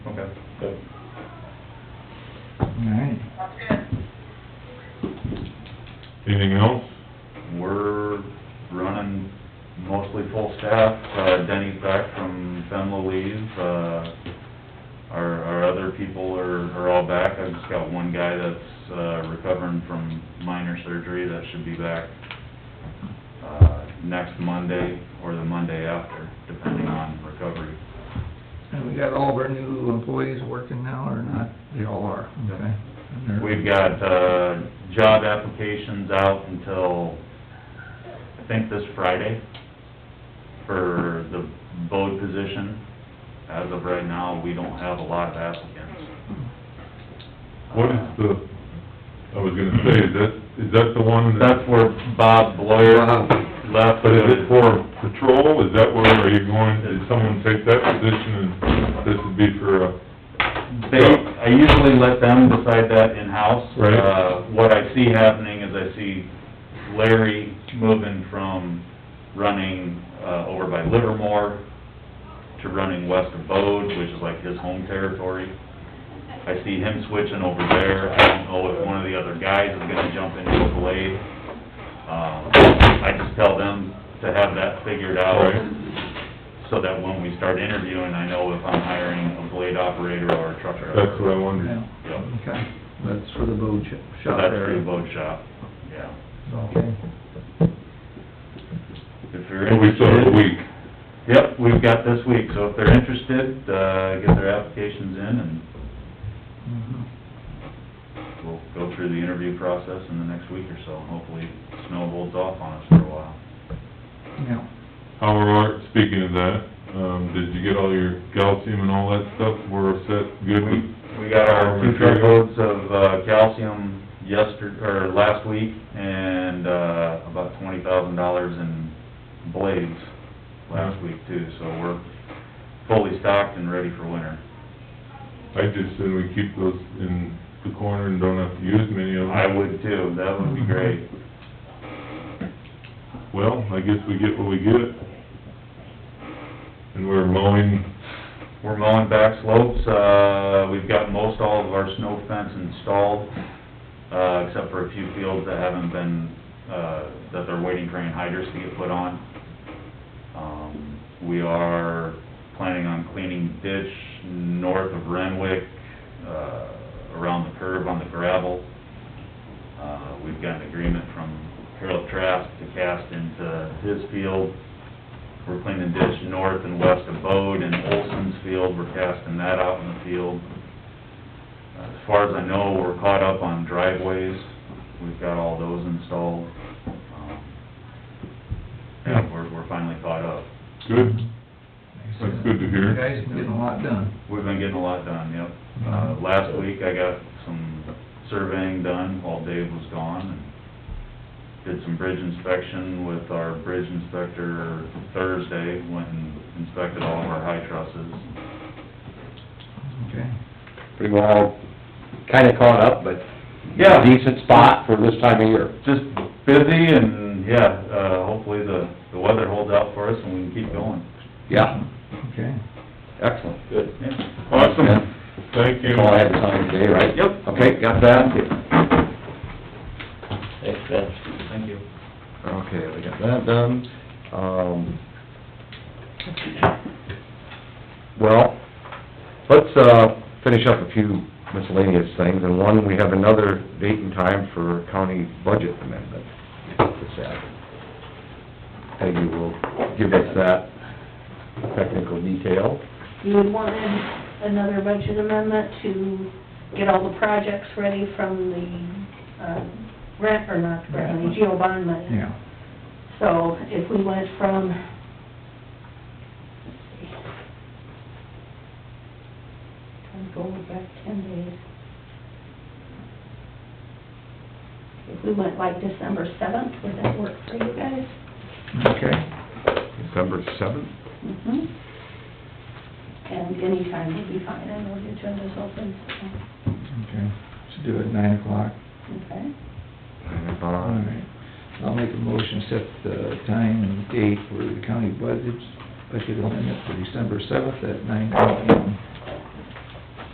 Alright. Anything else? We're running mostly full staff. Uh, Denny's back from FEMLA leave. Uh, our, our other people are, are all back. I've just got one guy that's, uh, recovering from minor surgery that should be back, uh, next Monday or the Monday after, depending on recovery. And we got all of our new employees working now, or not? They all are, okay. And they're- We've got, uh, job applications out until, I think this Friday, for the boat position. As of right now, we don't have a lot of applicants. What is the, I was gonna say, is that, is that the one that, That's where Bob Blair Bob. left. Hmm. but is it for patrol? Is that where, are you going, did someone take that position and this would be for uh, a... They, I usually let them decide that in-house. Right. Uh, what I see happening is I see Larry moving from running, uh, over by Livermore to running west of Bode, which is like his home territory. I see him switching over there. I don't know if one of the other guys is gonna jump into a blade. Um, I just tell them to have that figured out Right. so that when we start interviewing, I know if I'm hiring a blade operator or a truck driver. That's what I Yeah, wondered. okay. That's for the boat sh- So shop that's through the area. boat shop, yeah. Okay. If you're And we still have a interested- week. Yep, we've got this week, so if they're interested, uh, get their applications in and Mhm. we'll go through the interview process in the next week or so. and Hopefully, snow holds off on us for a while. Yeah. How are, speaking of that, um, did you get all your calcium and all that stuff? We're set, good with We got our two Material. truckloads of uh, calcium yester, or last week, and, uh, about twenty thousand dollars in blades last week too, so we're fully stocked and ready for winter. I just said we keep those in the corner and don't have to use many of them. I would too, that would be great. Well, I guess we get what we get. And we're mowing, We're mowing back slopes, uh, we've got most all of our snow fence installed, uh, except for a few fields that haven't been, uh, that they're waiting for any hydrants to get put on. Um, we are planning on cleaning ditch north of Renwick, uh, around the curve on the gravel. Uh, we've got an agreement from Harold Trask to cast into his field. We're cleaning ditch north and west of Bode and Olson's field, we're casting that out in the field. As far as I know, we're caught up on driveways, we've got all those installed. Um, Yeah, we're, we're finally caught up. good, That's good to hear. You guys been getting a lot done. We've been getting a lot done, yep. Uh, last week I got some surveying done while Dave was gone and did some bridge inspection with our bridge inspector Thursday, went and inspected all of our high trusses. Okay. pretty well kinda caught up, but Yeah. decent spot for this time of year. Just busy and, yeah, uh, hopefully the, the weather holds out for us and we can keep going. Yeah, Okay. excellent, good. Yeah. awesome, Yeah. thank you. That's all I had time today, right? Yep. Okay, got that? Thanks, Ben. Thank you. Okay, we got that done. Um, well, let's, uh, finish up a few miscellaneous things, and one, we have another date and time for county budget amendment this Saturday. Peggy will give us that technical detail. You would want in another budget amendment to get all the projects ready from the, uh, grant, or not grant, money, geo bond money. Yeah. So if we went from, trying to go back ten days. If we went like December seventh, would that work for you guys? Okay. December seventh? Mhm. And anytime would be fine, I know your agenda's open, so. Okay. Should do it at nine o'clock. Okay, All right. I'll make a motion, to set the time and date for the county budgets, budget amendment for December seventh at nine AM.